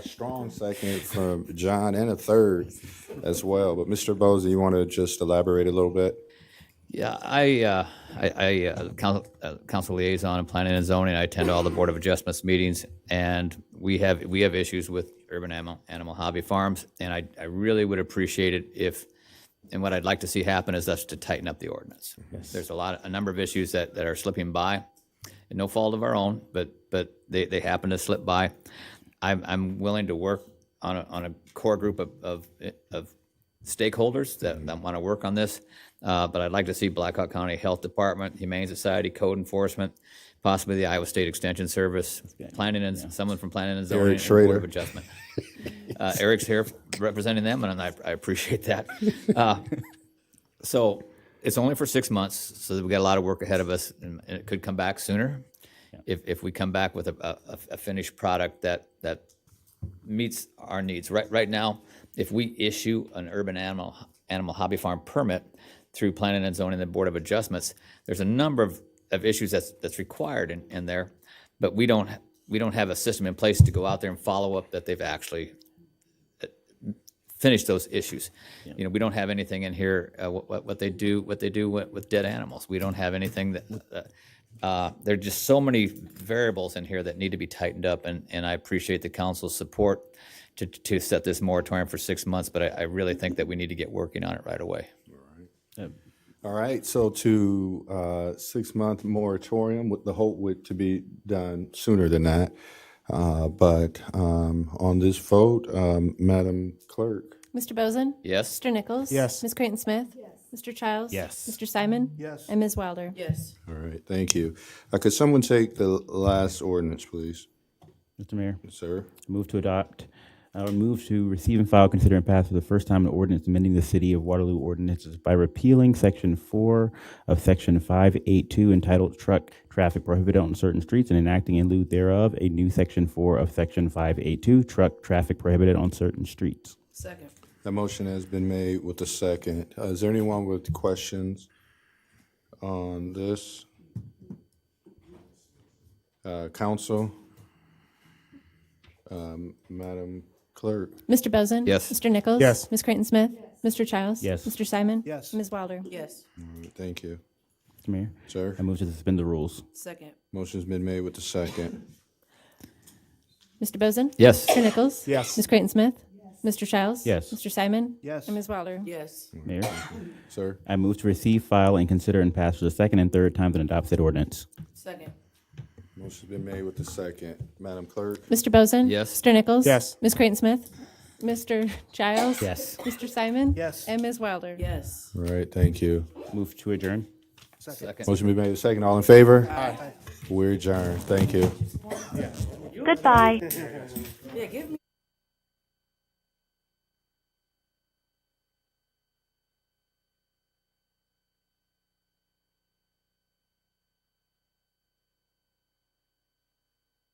Strong second from John and a third as well. But Mr. Boza, you want to just elaborate a little bit? Yeah, I, uh, I, I, uh, coun- uh, council liaison and planning and zoning, I attend all the Board of Adjustments meetings, and we have, we have issues with urban animal, animal hobby farms, and I, I really would appreciate it if, and what I'd like to see happen is us to tighten up the ordinance. There's a lot, a number of issues that, that are slipping by, and no fault of our own, but, but they, they happen to slip by. I'm, I'm willing to work on a, on a core group of, of, of stakeholders that, that want to work on this. Uh, but I'd like to see Blackhawk County Health Department, Humane Society, Code Enforcement, possibly the Iowa State Extension Service, planning and, someone from planning and zoning. and Board Schrader. of Adjustment. Uh, Eric's here representing them and I, I appreciate that. Uh, So it's only for six months, so we've got a lot of work ahead of us and and it could come back sooner. If, if we come back with a, a, a finished product that, that meets our needs. Right, right now, if we issue an urban animal, animal hobby farm permit through planning and zoning and the Board of Adjustments, there's a number of, of issues that's, that's required in, in there, but we don't, we don't have a system in place to go out there and follow up that they've actually uh, finished those issues. You know, we don't have anything in here, uh, what, what- what they do, what they do with, with dead animals. We don't have anything that, uh, uh, There are just so many variables in here that need to be tightened up, and, and I appreciate the council's support to, to set this moratorium for six months, but I, I really think that we need to get working on it right away. All right, so to uh, six-month moratorium with the hope would to be done sooner than that. Uh, But um, on this vote, um, Madam Clerk? Mr. Bozen? Yes? Mr. Nichols? Yes. Ms. Creighton Smith? Yes. Mr. Childs? Yes. Mr. Simon? Yes. And Ms. Wilder? Yes. All right, thank you. Uh, Could someone take the last ordinance, please, Mr. Mayor, sir? I move to adopt, uh, move to receive and file, consider and pass for the first time an ordinance amending the City of Waterloo ordinances by repealing Section 4 of Section 582 entitled Truck Traffic Prohibited on Certain Streets and enacting in lieu thereof a new Section 4 of Section 582 Truck Traffic Prohibited on Certain Streets. Second. The motion has been made with the second. Uh, Is there anyone with questions on this? Uh, Counsel? Um, Madam Clerk? Mr. Bozen? Yes. Mr. Nichols? Yes. Ms. Creighton Smith? Mr. Childs? Yes. Mr. Simon? Yes. Ms. Wilder? Yes. Thank you, Mr. Mayor, sir. I move to suspend the rules. Second. Motion's been made with the second. Mr. Bozen? Yes. Mr. Nichols? Yes. Ms. Creighton Smith? Yes. Mr. Childs? Yes. Mr. Simon? Yes. And Ms. Wilder? Yes. Mayor, Sir, I move to receive, file, and consider and pass for the second and third times and adopt said ordinance. Second. motion's been made with the second. Madam Clerk? Mr. Bozen? Yes. Mr. Nichols? Yes. Ms. Creighton Smith? Mr. Childs? Yes. Mr. Simon? Yes. And Ms. Wilder? Yes. All right, thank you. Move to adjourn. Motion been made with the second. All in favor? Aye. We're adjourned. Thank you. Goodbye. Yeah, give me.